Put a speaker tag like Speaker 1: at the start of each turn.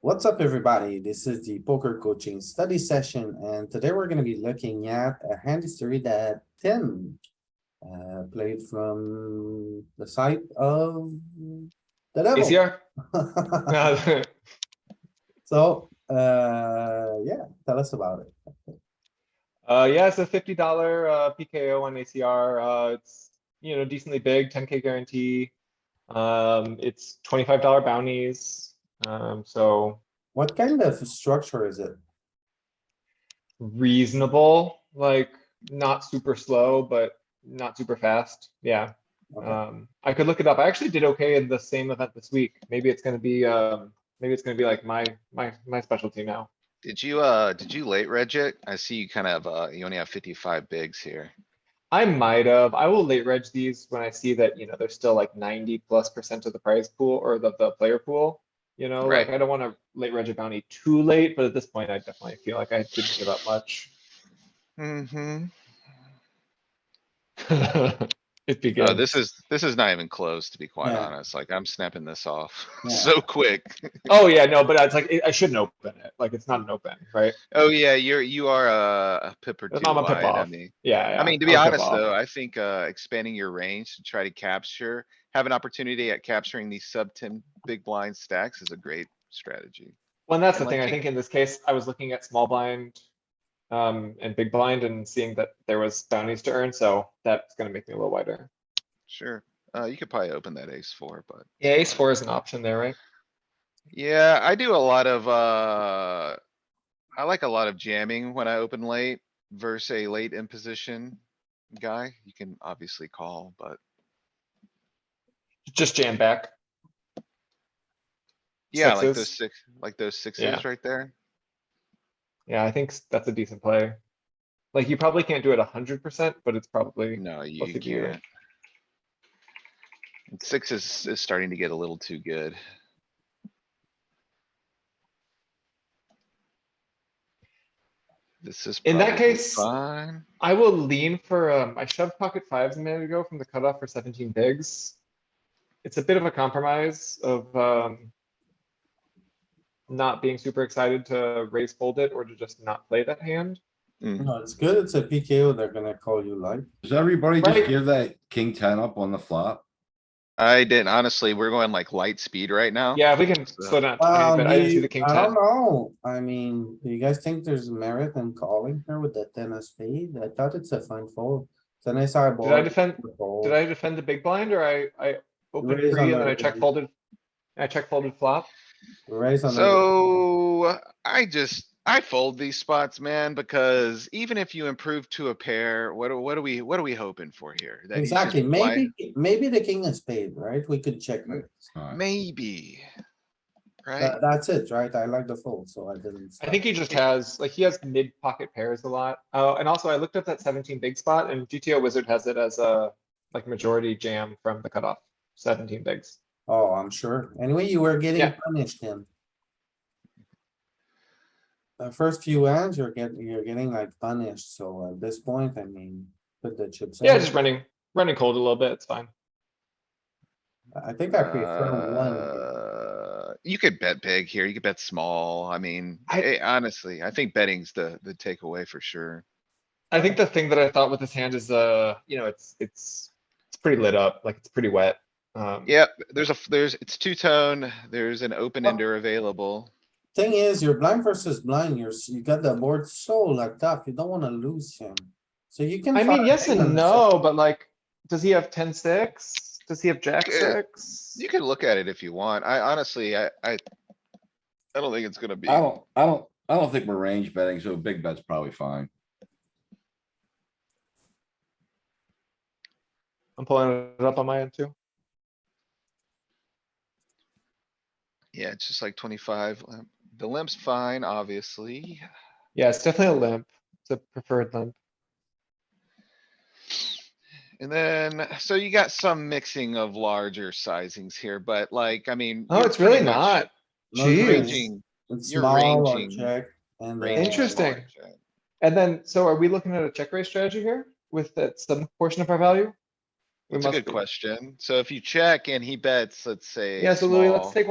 Speaker 1: What's up, everybody? This is the poker coaching study session, and today we're gonna be looking at a hand history that Tim uh, played from the side of the
Speaker 2: Is
Speaker 1: devil.
Speaker 2: here? No.
Speaker 1: So, uh, yeah, tell us about it.
Speaker 2: Uh, yeah, it's a fifty dollar, uh, PKO on ACR, uh, it's, you know, decently big, ten K guarantee. Um, it's twenty-five dollar bounties, um, so
Speaker 1: What kind of structure is it?
Speaker 2: reasonable, like, not super slow, but not super fast, yeah.
Speaker 1: Okay.
Speaker 2: Um, I could look it up, I actually did okay in the same event this week, maybe it's gonna be, um, maybe it's gonna be like my, my, my specialty now.
Speaker 3: Did you, uh, did you late reg it? I see you kind of, uh, you only have fifty-five bigs here.
Speaker 2: I might have. I will late reg these when I see that, you know, they're still like ninety plus percent of the prize pool or the, the player pool. You know, like
Speaker 3: Right.
Speaker 2: I don't wanna late reg a bounty too late, but at this point, I definitely feel like I didn't give up much.
Speaker 3: Mm-hmm.
Speaker 2: It
Speaker 3: No,
Speaker 2: begins.
Speaker 3: Uh, this is, this is not even close, to be quite
Speaker 1: Yeah.
Speaker 3: honest. Like, I'm snapping this off
Speaker 1: Yeah.
Speaker 3: so quick.
Speaker 2: Oh, yeah, no, but it's like, it- I shouldn't open it. Like, it's not an open, right?
Speaker 3: Oh, yeah, you're, you are uh, a pip or two
Speaker 2: It's not a pip
Speaker 3: wide. I
Speaker 2: off.
Speaker 3: mean,
Speaker 2: Yeah. yeah,
Speaker 3: I mean, to
Speaker 2: I'll
Speaker 3: be
Speaker 2: give
Speaker 3: honest,
Speaker 2: off.
Speaker 3: though, I think, uh, expanding your range to try to capture, have an opportunity at capturing these sub ten big blind stacks is a great strategy.
Speaker 2: Well, and that's
Speaker 3: And,
Speaker 2: the
Speaker 3: like,
Speaker 2: thing, I
Speaker 3: take-
Speaker 2: think in this case, I was looking at small blind. Um, and big blind and seeing that there was bounties to earn, so that's gonna make me a little wider.
Speaker 3: Sure. Uh, you could probably open that ace four, but.
Speaker 2: Yeah, ace four is an option there, right?
Speaker 3: Yeah, I do a lot of, uh, I like a lot of jamming when I open late versus a late in position guy. You can obviously call, but
Speaker 2: Just jam back.
Speaker 3: yeah, like those
Speaker 2: Sixes.
Speaker 3: six, like those sixes right there.
Speaker 2: Yeah, I think s- that's a decent play. Like you probably can't do it a hundred percent, but it's probably,
Speaker 3: No, you
Speaker 2: What
Speaker 3: you
Speaker 2: could you-
Speaker 3: can't. And Six is, is starting to get a little too good. This is.
Speaker 2: In that
Speaker 3: probably
Speaker 2: case-
Speaker 3: Fine.
Speaker 2: I will lean for, um, I shoved pocket fives a minute ago from the cutoff for seventeen bigs. It's a bit of a compromise of, um. Not being super excited to raise fold it or to just not play that hand.
Speaker 1: No, it's good. It's a PKO. They're gonna call you like.
Speaker 4: Does everybody
Speaker 2: Right.
Speaker 4: just give that king ten up on the flop?
Speaker 3: I didn't, honestly, we're going like light speed right now.
Speaker 2: Yeah, if we can
Speaker 3: So-
Speaker 2: slow down, a
Speaker 1: Well,
Speaker 2: tiny bit, I didn't see
Speaker 1: maybe-
Speaker 2: the king
Speaker 1: Um, I
Speaker 2: ten.
Speaker 1: don't know. I mean, do you guys think there's merit in calling here with the ten of spade? I thought it's a fine fold. It's a nice eyeball.
Speaker 2: Did I defend, did I defend the big blind or I, I opened
Speaker 1: Raise
Speaker 2: three
Speaker 1: on
Speaker 2: and then
Speaker 1: the-
Speaker 2: I check folded? I check folded flop?
Speaker 1: Raise on. the-
Speaker 3: So I just, I fold these spots, man, because even if you improve to a pair, what, are- what are we, what are we hoping for here? That he's just
Speaker 1: Exactly,
Speaker 3: blind-
Speaker 1: maybe, maybe the king of spade, right? We could check. raise.
Speaker 4: Alright,
Speaker 3: Maybe. Right?
Speaker 1: That- that's it, right? I like the fold, so I didn't.
Speaker 2: I think he just has, like, he has mid pocket pairs a lot. Oh, and also I looked up that seventeen big spot and GTO Wizard has it as a, like, majority jam from the cutoff, seventeen bigs.
Speaker 1: Oh, I'm sure. Anyway, you were getting
Speaker 2: Yeah.
Speaker 1: punished then. The first few hands, you're getting, you're getting like punished, so at this point, I mean, put the chips.
Speaker 2: Yeah,
Speaker 1: in.
Speaker 2: just running, running cold a little bit, it's fine.
Speaker 1: I think I prefer one.
Speaker 3: Uh, You could bet big here. You could bet small. I mean,
Speaker 2: I-
Speaker 3: eh, honestly, I think betting's the, the takeaway for sure.
Speaker 2: I think the thing that I thought with this hand is, uh, you know, it's, it's, it's pretty lit up, like, it's pretty wet. Um,
Speaker 3: Yep, there's a, f- there's, it's two tone. There's an open ender available.
Speaker 1: Thing is, you're blind versus blind, you're, s- you got the board so locked up, you don't wanna lose him. So you can.
Speaker 2: I mean,
Speaker 1: fire
Speaker 2: yes
Speaker 1: him on
Speaker 2: and
Speaker 1: the side.
Speaker 2: no, but like, does he have ten six? Does he have jack
Speaker 3: Yeah.
Speaker 2: six?
Speaker 3: You can look at it if you want. I honestly, I, I. I don't think it's gonna be.
Speaker 4: I don't, I don't, I don't think we're range betting, so big bet's probably fine.
Speaker 2: I'm pulling it up on my end too.
Speaker 3: Yeah, it's just like twenty-five. limp. The limp's fine, obviously.
Speaker 2: Yeah, it's definitely a limp. It's a preferred limp.
Speaker 3: And then, so you got some mixing of larger sizings here, but like, I mean.
Speaker 2: Oh,
Speaker 3: you're
Speaker 2: it's really
Speaker 3: pretty much
Speaker 2: not.
Speaker 1: No,
Speaker 2: Jeez.
Speaker 3: Ranging,
Speaker 1: It's
Speaker 3: You're
Speaker 1: small or
Speaker 3: ranging.
Speaker 1: check and. uh,
Speaker 3: ranging
Speaker 2: Interesting.
Speaker 3: large, right?
Speaker 2: And then, so are we looking at a check raise strategy here with that some portion of our value? We
Speaker 3: That's a
Speaker 2: must
Speaker 3: good
Speaker 2: be.
Speaker 3: question. So if you check and he bets, let's say.
Speaker 2: Yeah, so Louis, let's
Speaker 3: small.
Speaker 2: take